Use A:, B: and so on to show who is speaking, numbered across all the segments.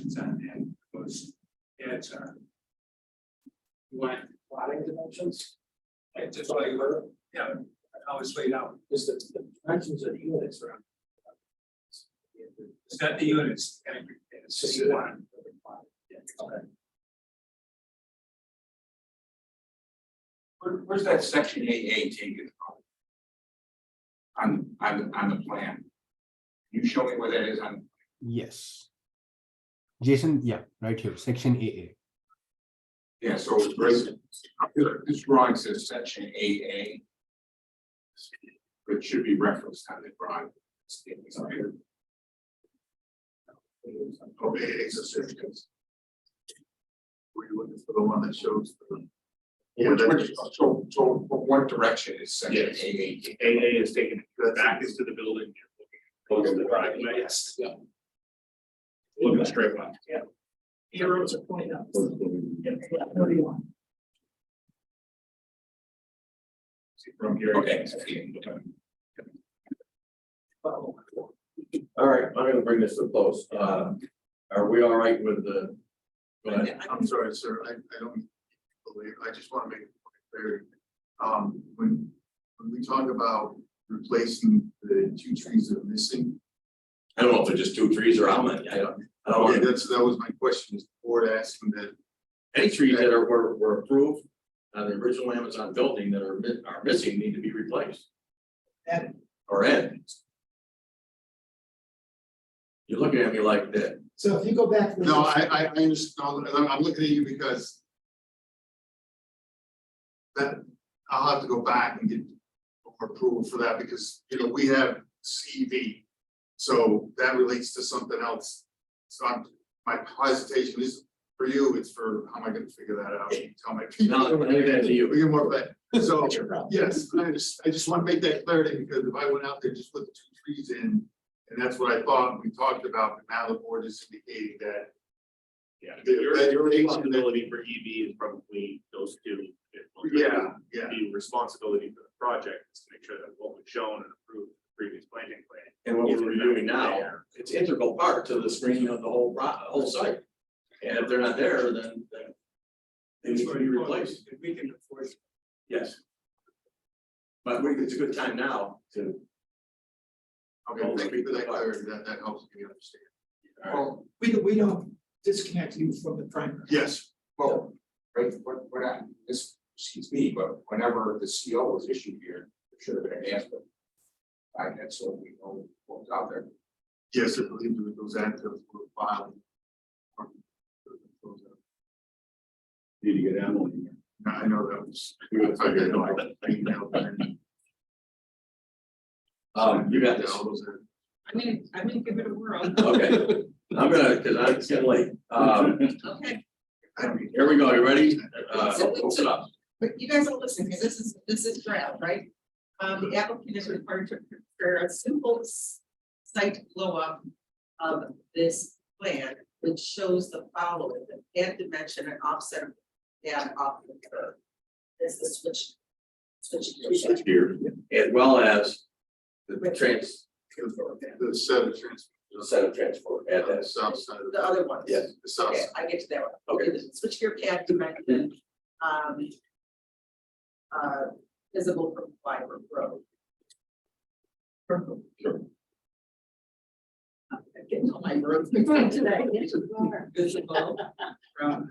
A: concern. uh, You want plotting dimensions? Like just like, yeah, how it's laid out. Is the, the dimensions of the units are. It's got the units. and It's just one. Okay.
B: Where, where's that section AA taken from? On, on, on the plan? Can You show me where that is on,
C: Yes. Jason, yeah, right here, section AA.
B: yeah, so it's right, up here. this drawing says section AA. But it should be referenced on the drawing. It's up here. Okay, it's a section.
D: Were you looking for the one that shows? the-
B: Which, which, so, so from what direction is section
D: Yes.
B: AA? taken?
D: AA is taken back into the building. Close the driveway.
A: Yes. Yeah.
D: Looking straight line.
A: Heroes are pointing out.
D: See From here.
B: Okay, I see.
E: All right, I'm gonna bring this to a close. Uh, are we all right with the? go ahead.
D: I'm sorry, sir, I, I don't believe, I just wanna make it clear. Um, when, when we talk about replacing the two trees that are missing.
E: I don't know if they're just two trees or how many. I don't, I don't
D: Okay,
E: want,
D: that's, that was my question, is the board asking that,
E: any trees that are, were, were approved on the original Amazon building that are, mi- are missing need to be replaced.
A: Added.
E: Or added. You're looking at me like that.
A: So if you go back. to the-
D: no, I, I, I understand, I'm, I'm looking at you because. That, I'll have to go back and get approval for that, because, you know, we have CV. So that relates to something else. So I'm, my hesitation is for you, it's for, how am I gonna figure that out? Tell my people.
E: Now, I leave that to you.
D: We get more, but, so,
A: Your problem.
D: yes, I just, I just wanna make that clarity, because if I went out there, just put the two trees in. And that's what I thought we talked about, but now the board is indicating that.
F: Yeah,
D: The
F: your,
D: vegetation
F: your
D: that-
F: responsibility for EV is probably those two.
D: Yeah, yeah,
F: The responsibility for the project is to make sure that what was shown and approved in the previous planting plan.
E: And what
F: is
E: we're doing now,
F: there.
E: it's integral part to the screening of the whole, pro- whole site. And if they're not there, then, then. They need to be replaced.
A: If we can enforce.
E: Yes. But we, it's a good time now to.
D: okay, thank you for that clarity, that, that helps me understand.
B: Well,
A: We, we don't disconnect you from the primary.
D: Yes,
B: well, right, what, what I, this, excuse me, but whenever the CO was issued here, it should have been an answer. I, that's so we know what was out there.
D: yes, I believe it was active for filing.
E: Need to get Emily.
D: I know that was. I didn't know,
E: here.
D: I emailed them.
E: Um, you got this,
D: All those are-
G: I'm gonna, I'm gonna give it a whirl,
E: okay, I'm gonna, cause I'm it's getting late, um,
G: okay,
D: I mean,
E: here we go, you ready? Uh, open it up,
G: but you guys will listen, because this is, this is draft, right? Um, the applicant is required to prepare a simple s- site blow-up of this plan, which shows the following, the add dimension and offset of that off the curve. This is switch, switch.
E: here, as well as the trans,
D: The seven trans,
E: the set of transport, add
D: the
E: that,
D: south side of
G: The
D: the,
G: other ones.
E: Yes.
D: the south.
G: Okay,
D: side.
G: I get to that one.
E: okay,
G: Okay, switch gear pad dimension, um. Uh, visible from Flyward Road. Purple. I'm getting all my roads mixed up today. Visible from.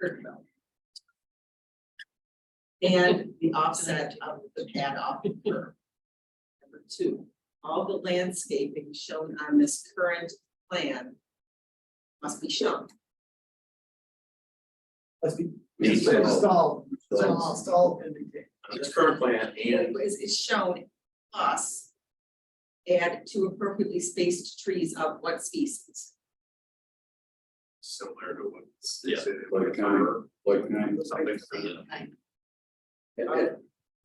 G: Kirkville. And the offset of the pad off the curb. Number two, all the landscaping shown on this current plan must be shown.
E: Needs to be
A: Install, install,
E: Installed.
A: install indicate.
E: it's current plan and
G: is, is shown us add two appropriately spaced trees of what species?
D: Similar to what.
E: Yeah.
D: Like
E: like.
D: Something.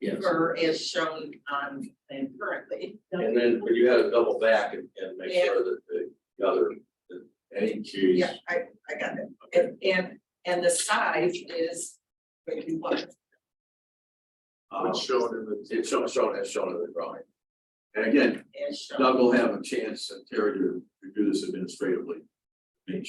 E: Yes,
G: Or as shown on plan currently.
E: and then when you had to double back and, and make sure that the other, that any trees.
G: Yeah, I, I got it. And, and, and the size is, what you want.
E: um,
D: It's shown in the.
E: It's shown, shown, as shown in the drawing. And again,
G: as shown.
E: Doug will have a chance, and Terry, to to do this administratively.